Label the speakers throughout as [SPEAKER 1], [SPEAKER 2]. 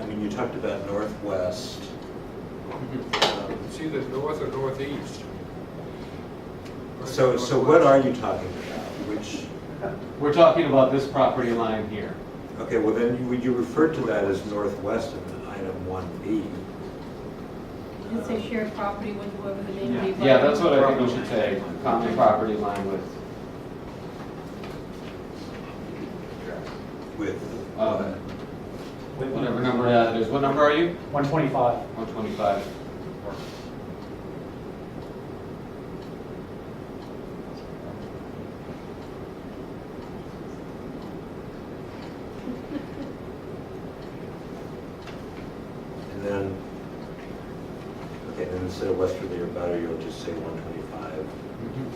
[SPEAKER 1] and you talked about northwest. Um,
[SPEAKER 2] It's either north or northeast.
[SPEAKER 1] So, so what are you talking about? Which,
[SPEAKER 3] We're talking about this property line here.
[SPEAKER 1] okay, well then, you- you referred to that as northwest in item one B.
[SPEAKER 4] And say share property with whoever the name be.
[SPEAKER 3] Yeah, that's what I think we should say, common property line with,
[SPEAKER 1] With,
[SPEAKER 3] uh,
[SPEAKER 1] what?
[SPEAKER 3] whatever number that is. What number are you?
[SPEAKER 5] 125.
[SPEAKER 3] 125.
[SPEAKER 1] and then, okay, then instead of westerly or better, you'll just say one twenty-five.
[SPEAKER 3] Mhm.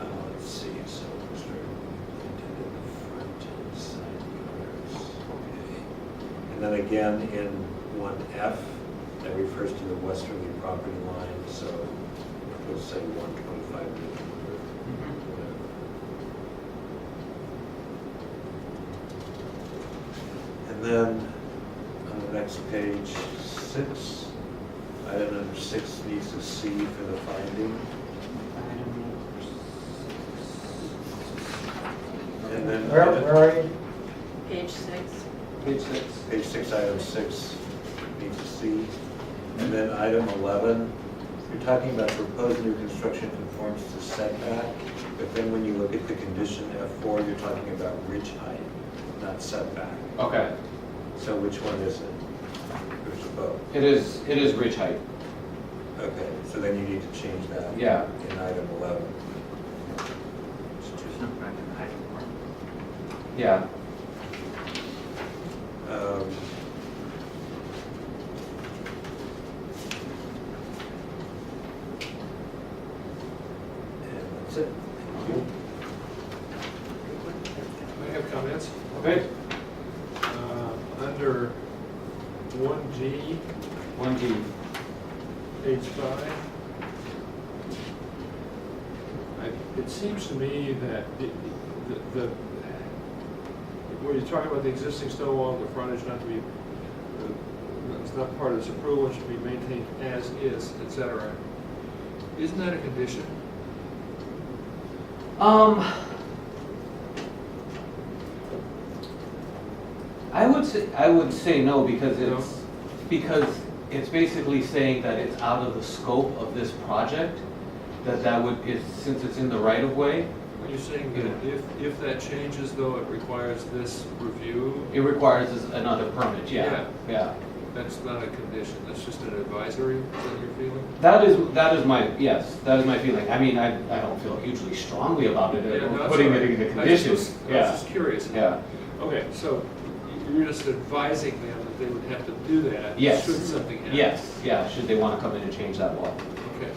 [SPEAKER 1] Uh, let's see, so it's very intended the front and side yards, okay. And then again, in one F, that refers to the westerly property line, so we'll say one twenty-five And then, on the next page, six, item number six needs a C for the finding. And then.
[SPEAKER 5] Where, where are you?
[SPEAKER 4] Page six.
[SPEAKER 3] Page six.
[SPEAKER 1] Page six, item six, needs to see. And then item 11, you're talking about proposed new construction conforms to setback, but then when you look at the condition F4, you're talking about ridge height, not setback.
[SPEAKER 3] Okay,
[SPEAKER 1] So which one is it? There's a vote.
[SPEAKER 3] it is, it is ridge height.
[SPEAKER 1] Okay, so then you need to change that.
[SPEAKER 3] Yeah.
[SPEAKER 1] In item 11.
[SPEAKER 3] Yeah,
[SPEAKER 1] Um, And that's it. Thank you.
[SPEAKER 2] I have comments.
[SPEAKER 3] okay,
[SPEAKER 2] Uh, Under one G,
[SPEAKER 3] 1G.
[SPEAKER 2] page five. I- It seems to me that the, the, the- where you're talking about the existing stone wall, the frontage not to be, uh, it's not part of this approval, it should be maintained as is, et cetera. Isn't that a condition?
[SPEAKER 3] Um, I would say, I would say no, because
[SPEAKER 2] No?
[SPEAKER 3] it's, because it's basically saying that it's out of the scope of this project, that that would, it's, since it's in the right of way,
[SPEAKER 2] Are you saying that if, if that changes though, it requires this review?
[SPEAKER 3] it requires us another permit, yeah, yeah.
[SPEAKER 2] That's not a condition, that's just an advisory, is that your feeling?
[SPEAKER 3] That is, that is my, yes, that is my feeling, I mean, I, I don't feel hugely strongly about it,
[SPEAKER 2] Yeah, no,
[SPEAKER 3] uh,
[SPEAKER 2] that's
[SPEAKER 3] putting
[SPEAKER 2] all
[SPEAKER 3] it
[SPEAKER 2] right.
[SPEAKER 3] in the
[SPEAKER 2] I was
[SPEAKER 3] conditions,
[SPEAKER 2] just- I was
[SPEAKER 3] yeah,
[SPEAKER 2] just curious.
[SPEAKER 3] yeah.
[SPEAKER 2] Okay, so y- you're just advising them that they would have to do that?
[SPEAKER 3] Yes.
[SPEAKER 2] Should something happen?
[SPEAKER 3] Yes, yeah, should they wanna come in and change that wall.
[SPEAKER 2] Okay.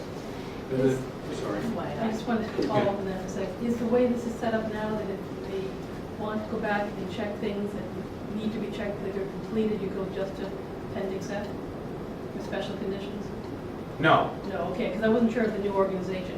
[SPEAKER 2] And then, sorry.
[SPEAKER 4] I just wanted to follow up on that for a sec. Is the way this is set up now that if they want to go back and check things that need to be checked, that are completed, you go just to appendix F with special conditions?
[SPEAKER 3] No,
[SPEAKER 4] No, okay, because I wasn't sure if the new organization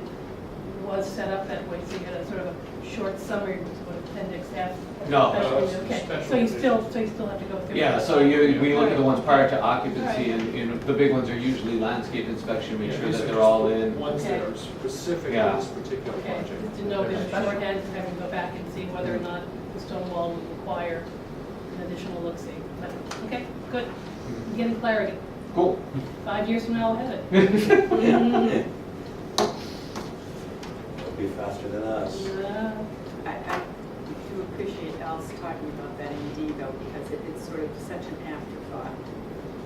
[SPEAKER 4] was set up that way, so you had a sort of a short summary with what appendix F.
[SPEAKER 3] No.
[SPEAKER 4] special-
[SPEAKER 2] No, it's
[SPEAKER 4] Okay,
[SPEAKER 2] special
[SPEAKER 4] so you
[SPEAKER 2] conditions.
[SPEAKER 4] still, so you still have to go through.
[SPEAKER 3] Yeah,
[SPEAKER 4] it.
[SPEAKER 3] so you, we look at the ones prior to occupancy, and, and the big ones are usually landscape inspection, make sure
[SPEAKER 2] These
[SPEAKER 3] that
[SPEAKER 2] are
[SPEAKER 3] they're
[SPEAKER 2] just
[SPEAKER 3] all in.
[SPEAKER 2] Ones that are specific to
[SPEAKER 3] Yeah.
[SPEAKER 2] this particular
[SPEAKER 4] Okay,
[SPEAKER 2] project.
[SPEAKER 4] just to know if shorthand, just having to go back and see whether or not the stone wall would require an additional look-see. But, Okay, good, I'm getting clarity.
[SPEAKER 3] Cool.
[SPEAKER 4] Five years from now, I'll have it.
[SPEAKER 1] It'll be faster than us.
[SPEAKER 4] Yeah.
[SPEAKER 6] I, I do appreciate Al's talking about that in D though, because it, it's sort of such an afterthought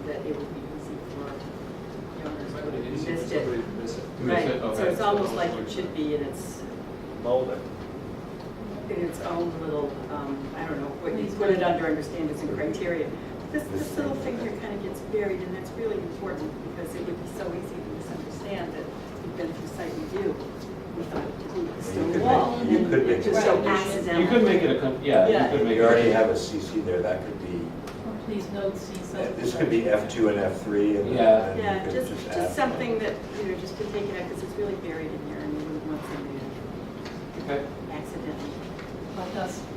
[SPEAKER 6] that it would be easy for
[SPEAKER 2] It
[SPEAKER 6] owners
[SPEAKER 2] might
[SPEAKER 6] would
[SPEAKER 2] be
[SPEAKER 6] have
[SPEAKER 2] easy for
[SPEAKER 6] missed it.
[SPEAKER 2] somebody to miss it.
[SPEAKER 3] Miss
[SPEAKER 6] Right,
[SPEAKER 3] it,
[SPEAKER 6] so
[SPEAKER 3] okay.
[SPEAKER 6] it's almost like it should be in its,
[SPEAKER 1] Boulder.
[SPEAKER 6] in its own little, um, I don't know, what you put it under, understand it's in criteria. This, this little figure kind of gets buried, and that's really important, because it would be so easy to misunderstand that we've been through site review. We thought it was a
[SPEAKER 1] You could
[SPEAKER 6] stone wall,
[SPEAKER 1] make- you
[SPEAKER 6] and
[SPEAKER 1] could make
[SPEAKER 6] it just so
[SPEAKER 4] it.
[SPEAKER 6] accidental.
[SPEAKER 3] You could make it a, con- yeah,
[SPEAKER 6] Yeah.
[SPEAKER 3] you could make
[SPEAKER 1] You already
[SPEAKER 3] it.
[SPEAKER 1] have a CC there, that could be,
[SPEAKER 4] Uh, Please note, see something.
[SPEAKER 1] this could be F2 and F3, and
[SPEAKER 3] Yeah.
[SPEAKER 1] then
[SPEAKER 6] Yeah,
[SPEAKER 1] you could
[SPEAKER 6] just,
[SPEAKER 1] just add.
[SPEAKER 6] just something that, you know, just to take it out, because it's really buried in here, and we wouldn't want somebody
[SPEAKER 3] Okay.
[SPEAKER 6] to accidentally.
[SPEAKER 4] Like us.